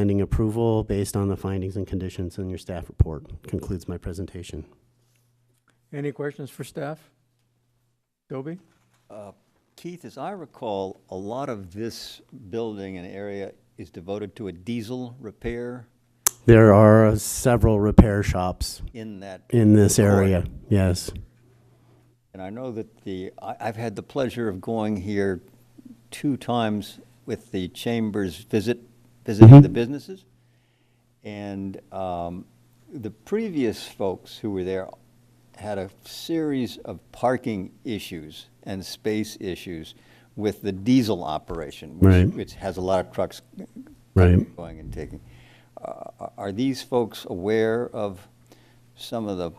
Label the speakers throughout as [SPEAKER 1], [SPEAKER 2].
[SPEAKER 1] Pending approval based on the findings and conditions in your staff report concludes my presentation.
[SPEAKER 2] Any questions for staff? Dobie?
[SPEAKER 3] Keith, as I recall, a lot of this building and area is devoted to a diesel repair
[SPEAKER 1] There are several repair shops
[SPEAKER 3] in that,
[SPEAKER 1] in this area, yes.
[SPEAKER 3] and I know that the, I, I've had the pleasure of going here two times with the chambers visit, visiting the businesses. And um, the previous folks who were there had a series of parking issues and space issues with the diesel operation, which,
[SPEAKER 1] Right.
[SPEAKER 3] which has a lot of trucks
[SPEAKER 1] Right.
[SPEAKER 3] going and taking. Uh, Are these folks aware of some of the,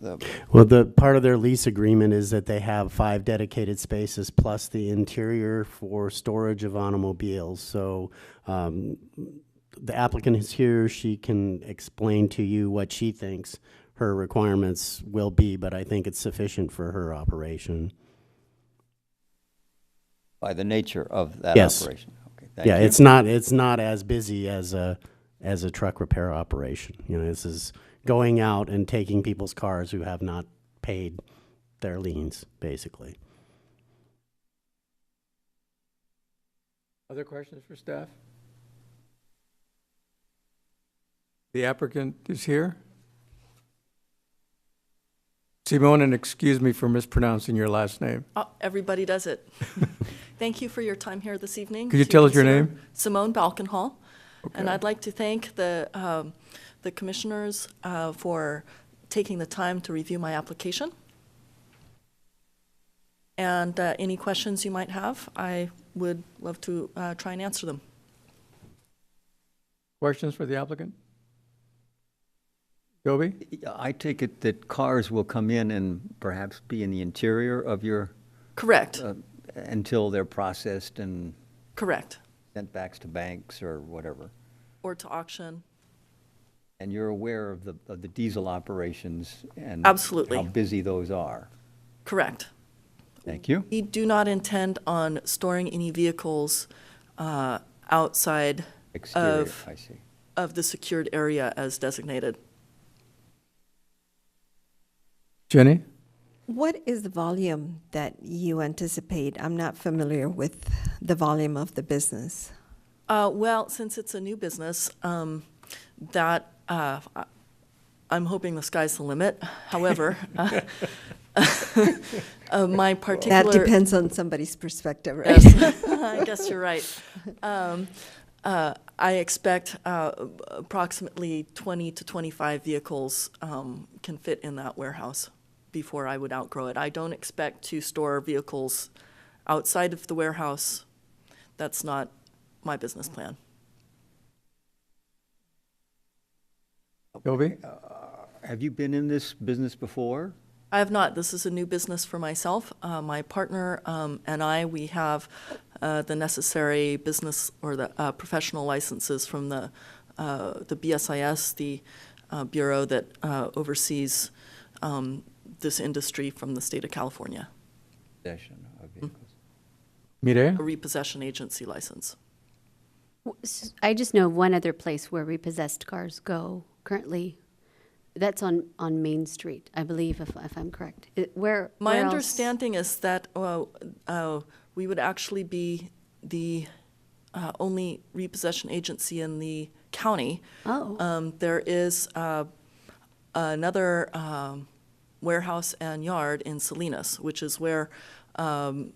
[SPEAKER 3] the
[SPEAKER 1] Well, the part of their lease agreement is that they have five dedicated spaces plus the interior for storage of automobiles. So um, the applicant is here, she can explain to you what she thinks her requirements will be, but I think it's sufficient for her operation.
[SPEAKER 3] by the nature of that
[SPEAKER 1] Yes.
[SPEAKER 3] operation? Okay, thank
[SPEAKER 1] Yeah,
[SPEAKER 3] you.
[SPEAKER 1] it's not, it's not as busy as a, as a truck repair operation. You know, this is going out and taking people's cars who have not paid their liens, basically.
[SPEAKER 2] Other questions for staff? The applicant is here. Simone, and excuse me for mispronouncing your last name.
[SPEAKER 4] Uh, Everybody does it. Thank you for your time here this evening.
[SPEAKER 2] Could you
[SPEAKER 4] to
[SPEAKER 2] tell us your
[SPEAKER 4] consider
[SPEAKER 2] name?
[SPEAKER 4] Simone Balkenhol. And
[SPEAKER 2] Okay.
[SPEAKER 4] I'd like to thank the, um, the commissioners uh, for taking the time to review my application. And uh, any questions you might have, I would love to uh, try and answer them.
[SPEAKER 2] Questions for the applicant? Dobie?
[SPEAKER 3] I take it that cars will come in and perhaps be in the interior of your,
[SPEAKER 4] Correct,
[SPEAKER 3] uh, until they're processed and
[SPEAKER 4] correct.
[SPEAKER 3] sent back to banks or whatever.
[SPEAKER 4] Or to auction.
[SPEAKER 3] And you're aware of the, of the diesel operations and
[SPEAKER 4] Absolutely.
[SPEAKER 3] how busy those are.
[SPEAKER 4] Correct.
[SPEAKER 3] Thank you.
[SPEAKER 4] We do not intend on storing any vehicles uh, outside
[SPEAKER 3] Exterior,
[SPEAKER 4] of
[SPEAKER 3] I see.
[SPEAKER 4] of the secured area as designated.
[SPEAKER 2] Jenny?
[SPEAKER 5] What is the volume that you anticipate? I'm not familiar with the volume of the business.
[SPEAKER 4] Uh, well, since it's a new business, um, that, uh, I- I'm hoping the sky's the limit. However, uh, uh, my particular.
[SPEAKER 5] That depends on somebody's perspective, right?
[SPEAKER 4] Yes, I guess you're right. Um, uh, I expect uh, approximately 20 to 25 vehicles um, can fit in that warehouse before I would outgrow it. I don't expect to store vehicles outside of the warehouse. That's not my business plan.
[SPEAKER 2] Dobie?
[SPEAKER 3] Have you been in this business before?
[SPEAKER 4] I have not. This is a new business for myself. Uh, my partner um, and I, we have uh, the necessary business or the uh, professional licenses from the uh, the BSIS, the uh, bureau that uh, oversees um, this industry from the state of California,
[SPEAKER 3] Possession of vehicles.
[SPEAKER 2] Mireya?
[SPEAKER 4] a repossession agency license.
[SPEAKER 6] W- s- I just know one other place where repossessed cars go currently. That's on, on Main Street, I believe, if, if I'm correct. It- Where?
[SPEAKER 4] My
[SPEAKER 6] where else?
[SPEAKER 4] understanding is that uh, uh, we would actually be the uh, only repossession agency in the county.
[SPEAKER 6] Oh.
[SPEAKER 4] Um, there is uh, another um, warehouse and yard in Salinas, which is where um,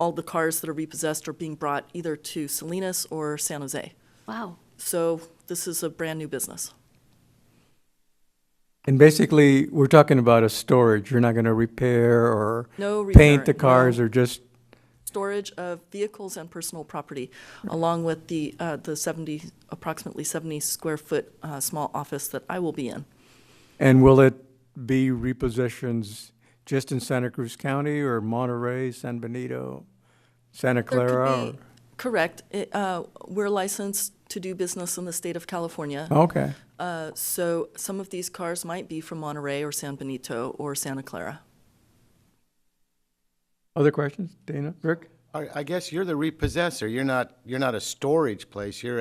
[SPEAKER 4] all the cars that are repossessed are being brought either to Salinas or San Jose.
[SPEAKER 6] Wow.
[SPEAKER 4] So this is a brand new business.
[SPEAKER 2] And basically, we're talking about a storage. You're not going to repair or
[SPEAKER 4] No
[SPEAKER 2] paint the
[SPEAKER 4] repairing, no.
[SPEAKER 2] cars or just,
[SPEAKER 4] storage of vehicles and personal property, along with the, uh, the 70, approximately 70 square foot uh, small office that I will be in.
[SPEAKER 2] and will it be repossessions just in Santa Cruz County or Monterey, San Benito, Santa
[SPEAKER 4] There could
[SPEAKER 2] Clara?
[SPEAKER 4] be-
[SPEAKER 2] or-
[SPEAKER 4] Correct. It, uh, We're licensed to do business in the state of California.
[SPEAKER 2] Okay.
[SPEAKER 4] Uh, So some of these cars might be from Monterey or San Benito or Santa Clara.
[SPEAKER 2] Other questions? Dana, Rick?
[SPEAKER 7] I I guess you're the repossessor. You're not, you're not a storage place. You're